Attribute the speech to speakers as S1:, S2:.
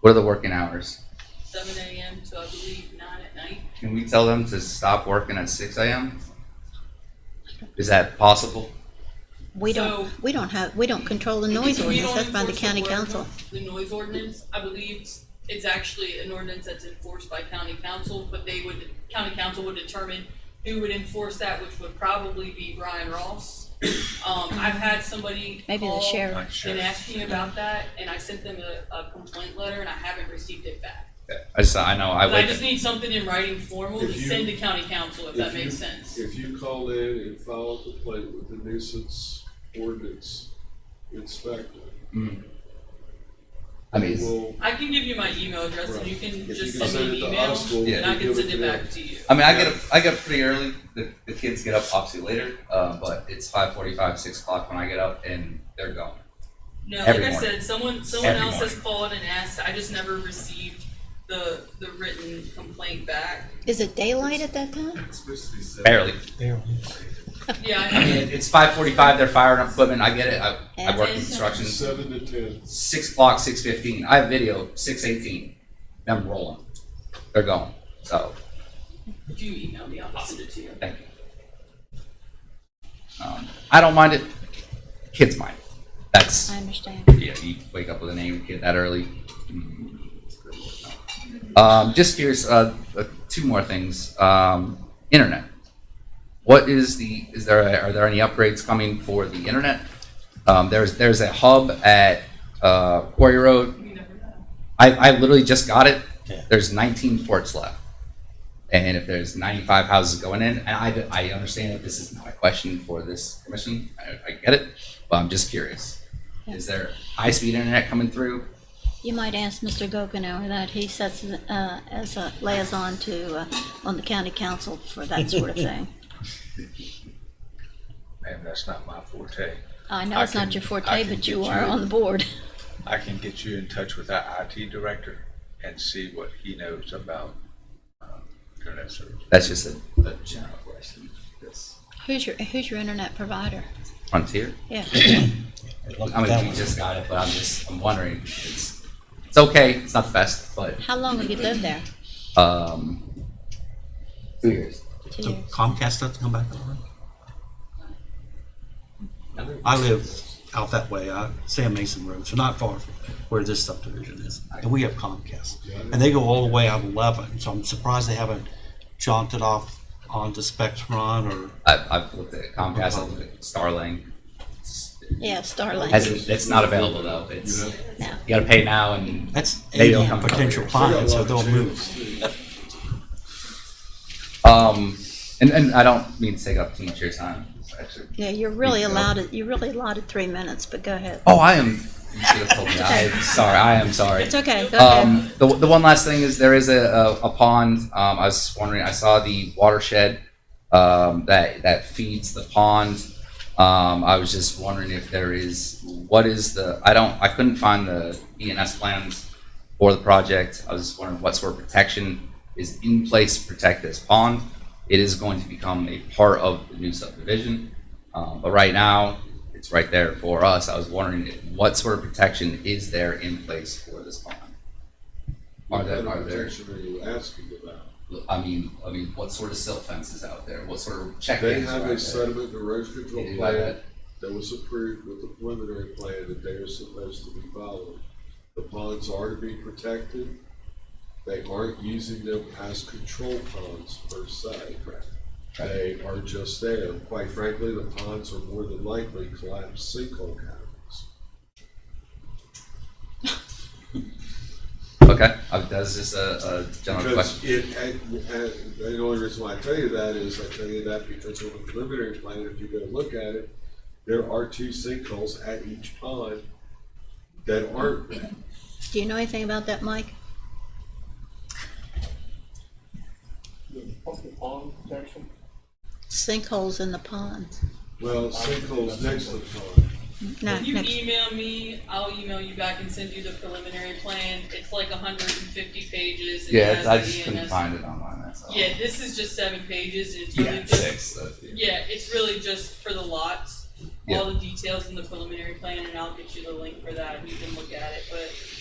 S1: What are the working hours?
S2: seven AM to I believe nine at night.
S1: Can we tell them to stop working at six AM? Is that possible?
S3: We
S2: So-
S3: don't, we don't have, we don't control the
S2: We
S3: noise
S2: don't
S3: ordinance, that's by the
S2: enforce
S3: county
S2: word
S3: council.
S2: nor- The noise ordinance, I believe, it's actually an ordinance that's enforced by county council, but they would, county council would determine who would enforce that, which would probably be Brian Ross. Um, I've had somebody
S3: Maybe the
S2: call
S3: sheriff.
S2: And asked me about that, and I sent them a, a complaint letter, and I haven't received it back.
S1: I just, I know, I
S2: But I
S1: wake
S2: just need something in writing formal to
S4: If you-
S2: send to county council, if that
S4: if you-
S2: makes sense.
S4: If you call in and file a complaint with the nuisance ordinance inspector,
S1: I mean, it's-
S4: we'll,
S2: I can give you my email address, and you can
S4: if you
S2: just
S4: can
S2: send
S4: send
S2: me
S4: it
S2: an
S4: to
S2: email,
S4: us, we'll.
S2: and I can
S4: we'll give
S2: send it
S4: to
S2: back to you.
S1: I mean, I get up, I get up pretty early. The, the kids get up obviously later, uh, but it's five forty-five, six o'clock when I get up and they're gone.
S2: No,
S1: Every
S2: like I
S1: morning.
S2: said, someone, someone
S1: Every
S2: else has called and asked, I just never received the, the written complaint back.
S3: Is it daylight at that time?
S1: Barely.
S2: Yeah,
S1: I
S2: I-
S1: mean, it's five forty-five, they're firing up equipment. I get it. I, I work in
S3: And-
S4: them.
S1: construction.
S4: Seven to ten.
S1: Six o'clock, six fifteen. I have video, six eighteen. Them rolling. They're gone. So,
S2: if you email me, I'll send it to you.
S1: thank you. Um, I don't mind it. Kids mind. That's,
S3: I understand.
S1: yeah, you wake up with a name kid that early. Mm, it's good. Um, just curious, uh, uh, two more things. Um, internet. What is the, is there, are there any upgrades coming for the internet? Um, there's, there's a hub at, uh, Quarry Road
S2: You never know.
S1: I, I literally just got it.
S5: Yeah.
S1: There's 19 ports left. And if there's 95 houses going in, and I, I understand that this is not a question for this commission, I, I get it, but I'm just curious. Is there high-speed internet coming through?
S3: You might ask Mr. Gokenhour that, he sets, uh, as a liaison to, uh, on the county council for that sort of thing.
S5: Ma'am, that's not my forte.
S3: I know
S5: I
S3: it's not
S5: can-
S3: your
S5: I
S3: forte,
S5: can
S3: but you
S5: get
S3: are
S5: you-
S3: on the board.
S5: I can get you in touch with our IT director and see what he knows about um, internet service.
S1: That's just a, a general question. This
S3: Who's your, who's your internet provider?
S1: Frontier?
S3: Yeah,
S1: I mean, you just got it, but I'm just, I'm wondering. It's, it's okay, it's not the best, but,
S3: how long have you lived there?
S1: um, two years.
S3: Two
S6: So
S3: years.
S6: Comcast doesn't come back online? I live out that way, uh, Sam Mason Road, so not far from where this subdivision is. And we have Comcast. And they go all the way out eleven, so I'm surprised they haven't jaunted off onto Spectrum or,
S1: I've, I've looked at Comcast, I've looked at Starlink.
S3: Yeah, Starlink,
S1: Hasn't, it's not available though. It's,
S4: Yeah.
S3: no.
S1: You gotta pay now and
S6: that's
S1: They don't
S6: eighty
S1: come
S6: potential
S1: over here.
S4: We got a
S6: clients, so
S4: lot of
S6: they'll move.
S4: channels, too.
S1: um and, and I don't mean to take up too much of your time. It's Actually.
S3: Yeah, you're really
S1: Yeah.
S3: allowed, you're really allotted three minutes, but go ahead.
S1: Oh I am you should have told me. I am sorry, I am sorry.
S3: It's okay, go ahead.
S1: Um the, the one last thing is there is a, a, a pond. Um I was wondering I saw the watershed um that that feeds the pond. Um I was just wondering if there is what is the I don't I couldn't find the ENS plans for the project. I was just wondering what sort of protection is in place to protect this pond. It is going to become a part of the new subdivision. Um, but right now, it's right there for us. I was wondering if- what sort of protection is there in place for this pond? Are
S4: What
S1: there,
S4: kind
S1: are
S4: of
S1: there,
S4: protection are you asking about?
S1: I mean, I mean, what sort of silt fences out there? What sort of check
S4: They
S1: dams are
S4: have
S1: out
S4: a
S1: there?
S4: sediment and erosion
S1: They
S4: control
S1: do have
S4: plan
S1: that.
S4: that was approved with the preliminary plan that they are supposed to be following. The ponds are to be protected. They aren't using them as control ponds per se. They are just there. Quite frankly, the ponds are more than likely collapsed sinkhole caverns.
S1: Okay, I- that's just a, a general question.
S4: Because it, and, and the only reason why I tell you that is I tell you that because on the preliminary plan, if you go look at it, there are two sinkholes at each pond that aren't, wet.
S3: Do you know anything about that, Mike?
S7: the purple pond protection.
S3: Sinkholes in the ponds?
S4: well, sinkholes next to the pond.
S3: No,
S2: If you
S3: next-
S2: email me, I'll email you back and send you the preliminary plan. It's like hundred and fifty pages. and it
S1: Yeah,
S2: has
S1: I
S2: the
S1: just couldn't
S2: ENS.
S1: find it online, that's all.
S2: Yeah, this is just seven pages, and it's really
S1: Yeah,
S2: just
S1: six, so, yeah.
S2: Yeah, it's really just for the lots, all the details in the preliminary plan, and I'll get you the link for that, and you can look at it, but